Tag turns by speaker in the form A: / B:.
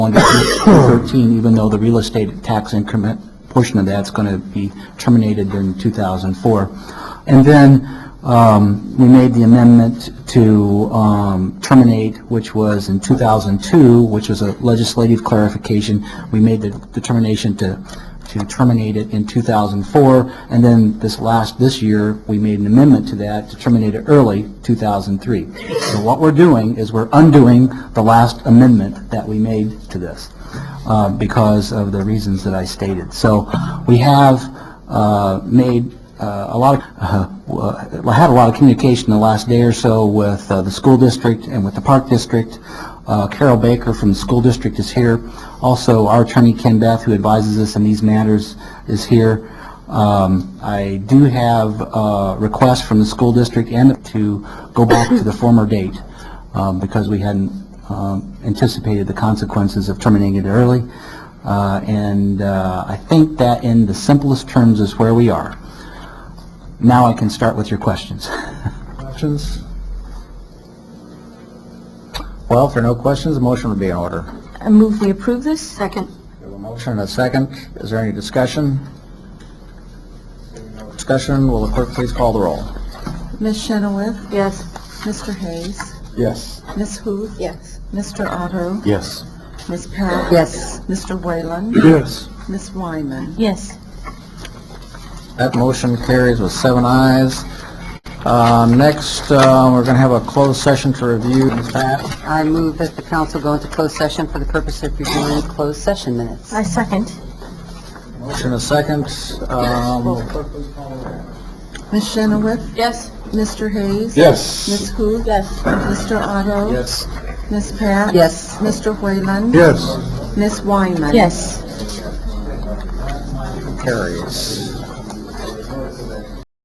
A: on to 2013, even though the real estate tax increment portion of that's going to be terminated in 2004. And then um, we made the amendment to um, terminate, which was in 2002, which was a legislative clarification. We made the determination to, to terminate it in 2004, and then this last, this year, we made an amendment to that to terminate it early, 2003. So what we're doing is we're undoing the last amendment that we made to this uh, because of the reasons that I stated. So we have uh, made uh, a lot of, uh, w- I had a lot of communication the last day or so with uh, the school district and with the park district. Uh, Carol Baker from the school district is here. Also, our attorney Ken Beth, who advises us in these matters, is here. Um, I do have uh, requests from the school district and to go back to the former date um, because we hadn't um, anticipated the consequences of terminating it early. Uh, And uh, I think that in the simplest terms is where we are. Now I can start with your questions.
B: Questions? Well, if there are no questions, the motion would be in order.
C: I move we approve this. Second.
B: We have a motion and a second. Is there any discussion? Discussion, will the clerk please call the roll?
D: Ms. Chenoweth,
C: Yes.
D: Mr. Hayes,
B: Yes.
D: Ms. Huth.
C: Yes.
D: Mr. Otto,
B: Yes.
D: Ms. Powell.
C: Yes.
D: Mr. Whalen,
B: Yes.
D: Ms. Wyman.
C: Yes.
B: That motion carries with seven ayes. Uh, Next, uh, we're going to have a closed session to review. Ms. Pat,
E: I move that the council go into closed session for the purpose of reviewing closed session minutes.
C: I second.
B: motion and a second. Um,
D: Ms. Chenoweth,
C: Yes.
D: Mr. Hayes.
B: Yes.
D: Ms. Huth.
C: Yes.
D: Mr. Otto.
B: Yes.
D: Ms. Powell.
E: Yes.
D: Mr. Whalen.
B: Yes.
D: Ms. Wyman.
C: Yes.
B: Carries.